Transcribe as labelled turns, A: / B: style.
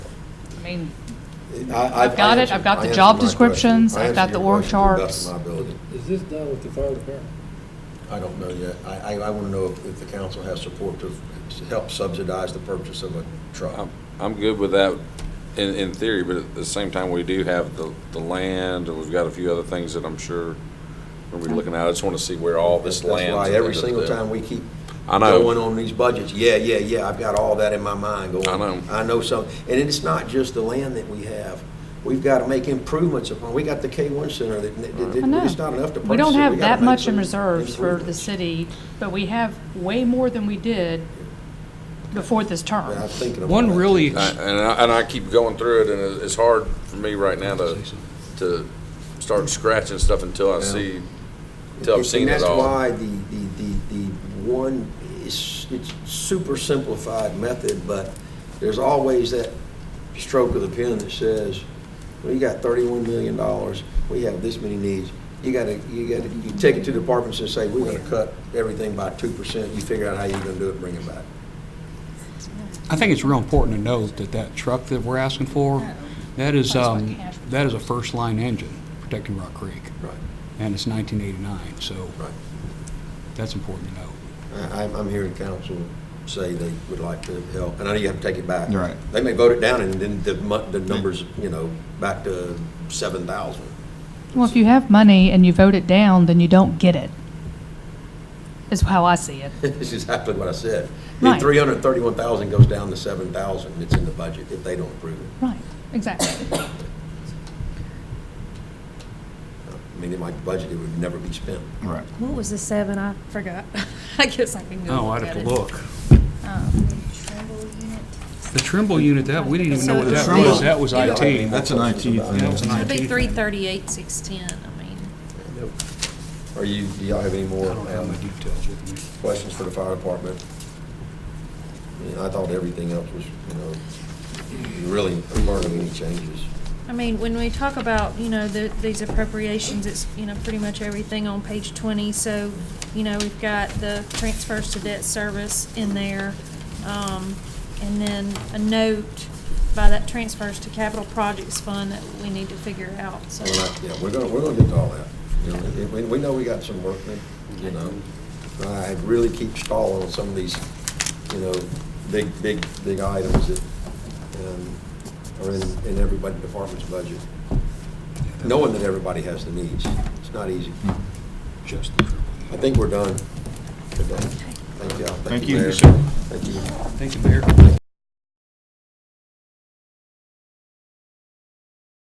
A: I mean,
B: I-
A: I've got it.
B: I answered-
A: I've got the
B: I answered
A: job
B: my question.
A: descriptions.
B: I
A: I've
B: answered
A: got the
B: your
A: org
B: question to the
A: charts.
B: best of my ability.
C: Is this done with the fire department?
B: I don't know yet. I, I, I want to know if if the council has support to help subsidize the purchase of a truck.
D: I'm, I'm good with that in, in theory, but at the same time, we do have the, the land, and we've got a few other things that I'm sure we're gonna be looking at. I just wanna see where all this lands.
B: That's
D: at
B: why
D: the
B: every
D: end of
B: single
D: the-
B: time we keep
D: I know.
B: going on these budgets, yeah, yeah, yeah, I've got all that in my mind going.
D: I know.
B: I know some, and it's not just the land that we have. We've got to make improvements upon, we got the K-1 center that, that-
A: I know.
B: that- it's not enough to purchase.
A: We don't
B: it.
A: have
B: gotta
A: that
B: make
A: much in
B: some
A: reserves for the
B: improvements.
A: city, but we have way more than we did before this
B: But
A: term.
B: I'm thinking about
E: One
B: that.
E: really,
D: I- And I, and I keep going through it, and it- it's hard for me right now to, to start scratching stuff until I
B: Yeah.
D: see, until
B: And-
D: I've seen it all.
B: And that's why the, the, the, the one, it's, it's super simplified method, but there's always that stroke of the pen that says, well, you got thirty-one million dollars, we have this many needs. You gotta, you gotta, you take it to departments and say, we're gonna cut everything by two percent, you figure out how you're gonna do it, bring it back.
E: I think it's real important to note that that truck that we're asking for, that is,
A: That's what
E: um,
A: cash-
E: that is a first-line engine protecting Rock Creek,
B: Right,
E: and it's 1989, so
B: right.
E: that's important to note.
B: I, I'm, I'm hearing council say they would like to help, and I know you have to take it back.
F: Right.
B: They may vote it down and then the mu, the numbers, you know, back to seven thousand.
A: Well, if you have money and you vote it down, then you don't get it, is how I see it.
B: This is exactly what I said.
A: Right.
B: Then three hundred and thirty-one thousand goes down to seven thousand, it's in the budget if they don't approve it.
A: Right, exactly.
B: I mean, in my budget, it would never be spent.
F: Right.
G: What was the seven? I forgot. I guess I can go.
E: Oh, I'd
G: at
E: have to
G: it.
E: look.
G: Um,
E: The Trimble unit, that, we didn't even know what that
G: So-
E: was, that was IT.
F: That's an IT thing.
E: That was an
G: It'd be
E: IT.
G: three thirty-eight, six ten, I mean.
B: Are you, do y'all have any
E: I
B: more
E: don't have my
B: um,
E: details with me.
B: questions for the fire department? I mean, I thought everything else was, you know, you really hardly any changes.
G: I mean, when we talk about, you know, the, these appropriations, it's, you know, pretty much everything on page twenty, so, you know, we've got the transfers to debt service in there. Um, and then a note by that transfers to capital projects fund that we need to figure out, so.
B: Well, I- Yeah, we're gonna, we're gonna get to all that. You know, it- we, we know we got some work, to- you know. I really keep stalling on some of these, you know, big, big, big items that um, are in, in everybody department's budget. Knowing that everybody has the needs, it's not easy.
E: Just the Trimble
B: I think we're done. We're done. Thank y'all.
F: Thank you,
B: Mayor.
F: sir.
B: Thank you.
E: unit. Thank you, Mayor.